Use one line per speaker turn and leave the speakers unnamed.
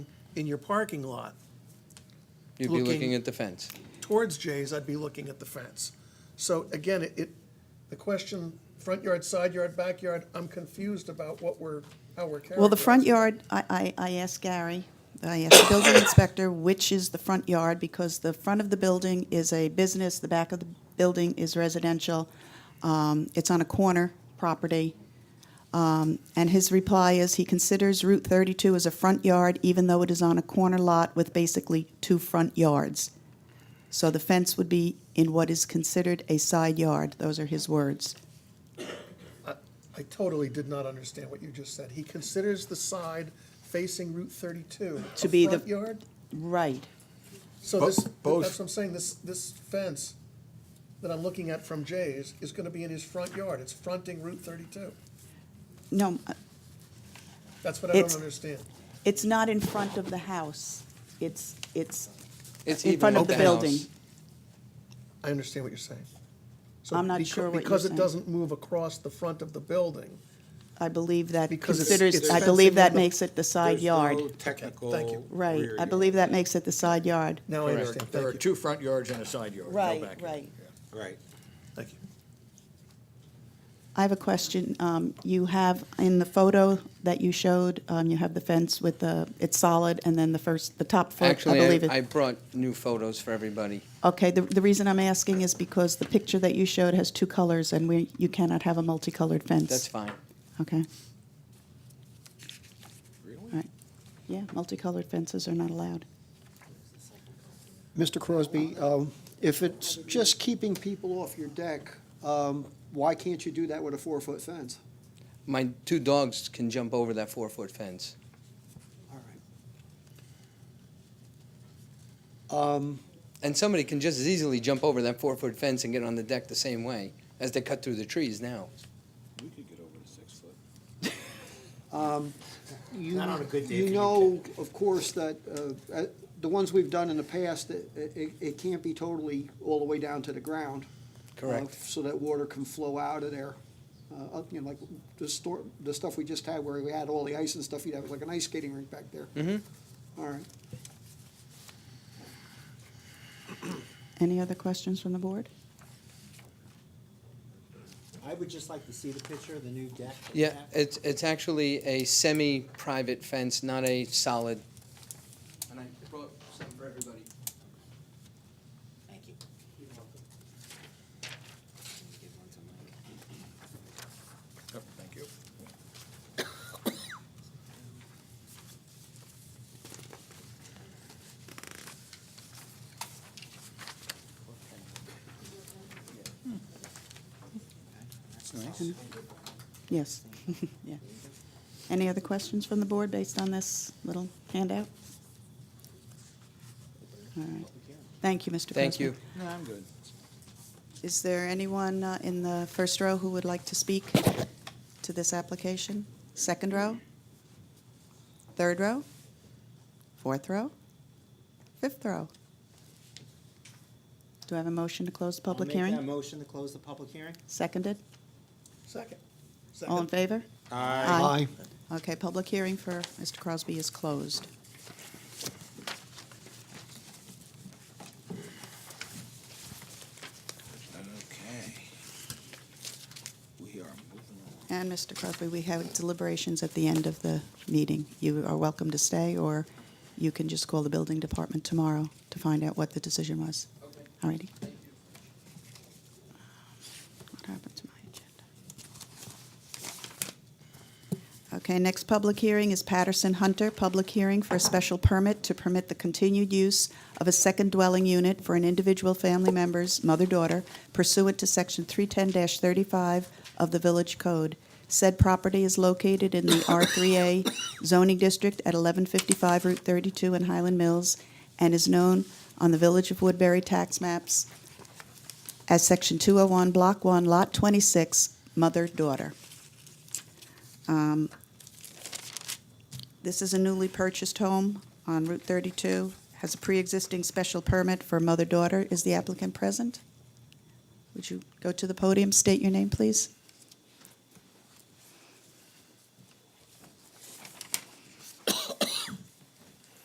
in your parking lot
You'd be
Looking-
looking at the fence.
towards Jay's, I'd be looking at the fence. So again, it- it, the question, front yard, side yard, backyard, I'm confused about what we're, how we're characterizing.
Well, the front yard, I, I, I asked Gary, I asked the building inspector, which is the front yard, because the front of the building is a business, the back of the building is residential. Um, it's on a corner property. Um, and his reply is he considers Route thirty-two as a front yard, even though it is on a corner lot with basically two front yards. So the fence would be in what is considered a side yard, those are his words.
I totally did not understand what you just said. He considers the side facing Route 32
To
a
be the-
front yard?
Right.
So
Bo-
this, that's
both.
what I'm saying, this, this fence that I'm looking at from Jay's is going to be in his front yard. It's fronting Route 32.
No,
That's what I don't
It's-
understand.
It's not in front of the house. It's, it's
It's
in
even
front
with
of the
house.
building.
I understand what you're saying. So
I'm not
becau-
sure what you're
Because it
saying.
doesn't move across the front of the building.
I believe that
Because it's-
considers,
it's
I believe
fencing
that
in the-
makes it the side
There's no
yard.
Technical.
Thank you.
Right,
rear
I
yard.
believe that makes it the side yard.
Now I
There are-
understand.
There are
Thank you.
two front yards and a side yard, no backyard.
Right.
Thank you.
I have a question. Um, You have, in the photo that you showed, um, you have the fence with the, it's solid, and then the first, the top foot, I believe
Actually, I- I
it.
brought new photos for everybody.
Okay, the, the reason I'm asking is because the picture that you showed has two colors, and we, you cannot have a multicolored fence.
That's fine.
Okay. Really? Yeah, multicolored fences are not allowed.
Mr. Crosby, um, if it's just keeping people off your deck, um, why can't you do that with a four-foot fence?
My two dogs can jump over that four-foot fence.
All right.
Um,
And somebody can just as easily jump over that four-foot fence and get on the deck the same way as they cut through the trees now.
You- You know, of course, that uh, uh, the ones we've done in the past, it- it it can't be totally all the way down to the ground. uh,
Correct.
So that water can flow out of there. Uh, up, You know, like the store, the stuff we just had where we had all the ice and stuff, you'd have like an ice skating rink back there. All right.
Any other questions from the board?
I would just like to see the picture of the new deck. that you
Yeah,
have.
it's, it's actually a semi-private fence, not a solid. And I brought some for everybody.
Yep, Thank you.
That's nice.
Yes, yeah. Any other questions from the board based on this little handout? All right. Thank you, Mr.
Thank
Grossman.
you.
No, I'm good.
Is there anyone uh, in the first row who would like to speak to this application? Second row? Third row? Fourth row? Fifth row? Do I have a motion to close the public
I'll make that
hearing?
motion to close the public hearing.
Seconded?
Second.
All in
Second.
favor?
Aye.
Okay, public hearing for Mr. Crosby is closed.
Okay. We are moving on.
And Mr. Crosby, we have deliberations at the end of the meeting. You are welcome to stay, or you can just call the building department tomorrow to find out what the decision was. All righty. What happened to my agenda? Okay, next public hearing is Patterson Hunter, public hearing for a special permit to permit the continued use of a second dwelling unit for an individual family member's mother-daughter pursuant to Section 310-35 of the Village Code. Said property is located in the R3A zoning district at 1155 Route 32 in Highland Mills and is known on the Village of Woodbury tax maps as Section 201, Block 1, Lot 26, mother-daughter. Um, This is a newly purchased home on Route 32, has a pre-existing special permit for mother-daughter. Is the applicant present? Would you go to the podium, state your name, please?